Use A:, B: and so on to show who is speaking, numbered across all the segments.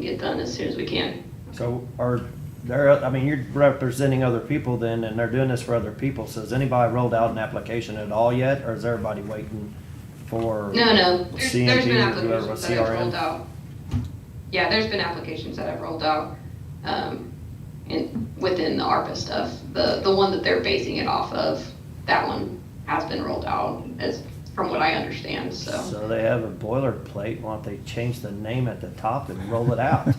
A: get done as soon as we can.
B: So are there, I mean, you're representing other people then, and they're doing this for other people. So has anybody rolled out an application at all yet, or is everybody waiting for?
A: No, no, there's, there's been
B: CMP or whoever,
A: applications that I've
B: CRM?
A: rolled out. Yeah, there's been applications that I've rolled out, um, in, within the ARPA stuff. The, the one that they're basing it off of, that one has been rolled out, as, from what I understand, so.
B: So they have a boilerplate. Why don't they change the name at the top and roll it out?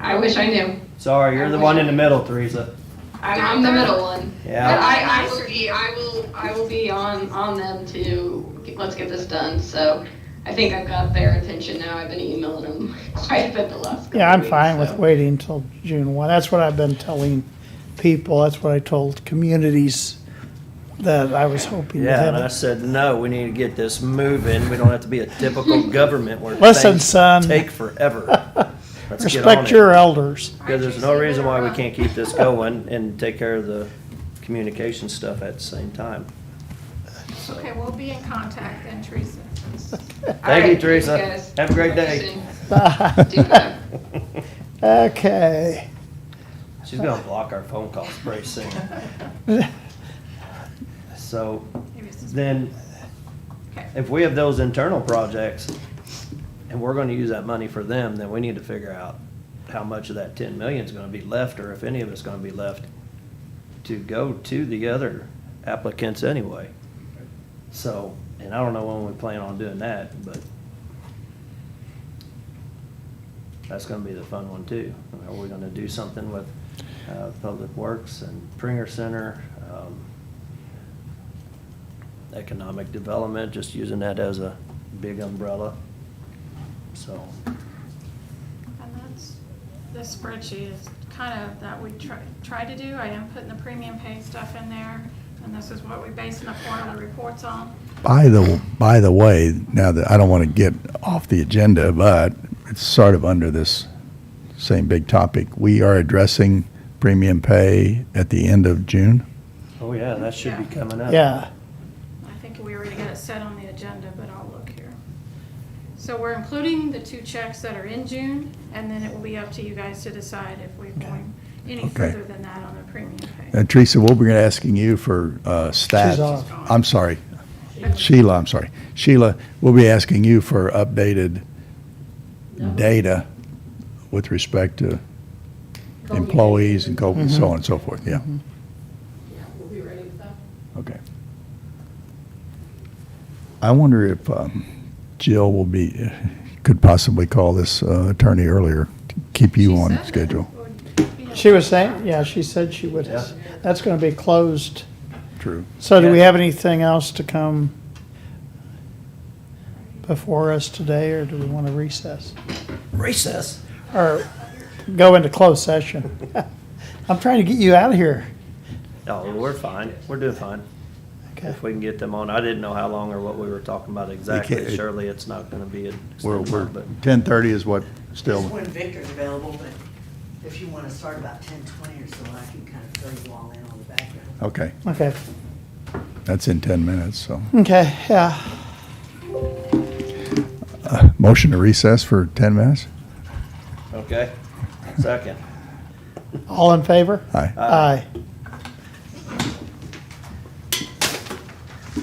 A: I wish I knew.
B: Sorry, you're the one in the middle, Teresa.
A: I'm, I'm the middle one.
B: Yeah.
A: But I, I will be, I will, I will be on, on them to, get- let's get this done, so. I think I've got their attention now. I've been emailing them quite a bit the last couple
C: Yeah, I'm
A: weeks,
C: fine with
A: so.
C: waiting until June one. That's what I've been telling people. That's what I told communities that I was hoping to
B: Yeah, and I
C: have.
B: said, no, we need to get this moving. We don't have to be a typical government where
C: Listen,
B: things
C: son.
B: take forever. Let's get on
C: Respect
B: it.
C: your uh, elders.
B: Because there's no reason why we can't keep this going and take care of the communication stuff at the same time.
D: Okay, we'll be in contact then, Teresa.
A: All right,
B: Thank you,
A: thanks,
B: Teresa.
A: guys.
B: Have a great
A: Talk to you
B: day.
A: soon. Do that.
C: Okay.
B: She's gonna block our phone calls pretty soon. So then, if we have those internal projects and we're gonna use that money for them, then we need to figure out how much of that ten million is gonna be left, or if any of it's gonna be left to go to the other applicants anyway. So, and I don't know when we plan on doing that, but that's gonna be the fun one too. Are we gonna do something with, uh, Public Works and Pringer Center, um, economic development, just using that as a big umbrella? So,
D: And that's, the spreadsheet is kind of that we try, try to do. I am putting the premium pay stuff in there, and this is what we're basing the quarterly reports on.
E: By the by the way, now that I don't want to get off the agenda, but it's sort of under this same big topic. We are addressing premium pay at the end of June.
B: oh yeah, that should be coming up.
C: Yeah.
D: I think we already got it set on the agenda, but I'll look here. So we're including the two checks that are in June, and then it will be up to you guys to decide if we're going any
E: Okay.
D: further than that on the premium pay.
E: And Uh, Teresa, we'll be asking you for uh, stats.
C: She's off.
E: I'm sorry, Sheila. I'm sorry, Sheila. We'll be asking you for updated data with respect to employees and co- so on and so forth. Yeah.
F: Yeah, we'll be ready with that.
E: Okay. I wonder if um, Jill will be, could possibly call this uh, attorney earlier to keep you
D: She
E: on
D: said
E: schedule.
D: that would be-
C: She was saying, yeah, she said she would.
B: Yeah.
C: That's gonna be closed.
E: True.
C: So do we
B: Yeah.
C: have anything else to come before us today, or do we want to recess?
B: Recess.
C: Or go into closed session? I'm trying to get you out of here.
B: Oh, we're fine. We're doing fine.
C: Okay.
B: If we can get them on, I didn't know how long or what we were talking about exactly.
E: can't-
B: Surely it's not gonna be a
E: We're,
B: extended
E: we're,
B: one, but
E: 10:30 is what,
F: Just
E: still,
F: when Victor's available, but if you want to start about ten twenty or so, I can kind of fill you all in on the background.
E: okay,
C: Okay,
E: that's in 10 minutes, so.
C: okay, yeah.
E: Uh, Motion to recess for 10 minutes?
B: okay. Second.
C: All in favor?
E: Aye.
C: Aye.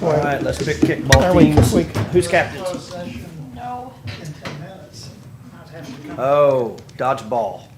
B: All right, let's pick kickball
C: Are we-
B: teams.
C: we-
B: Who's captain?
D: No.
B: Oh, dodgeball.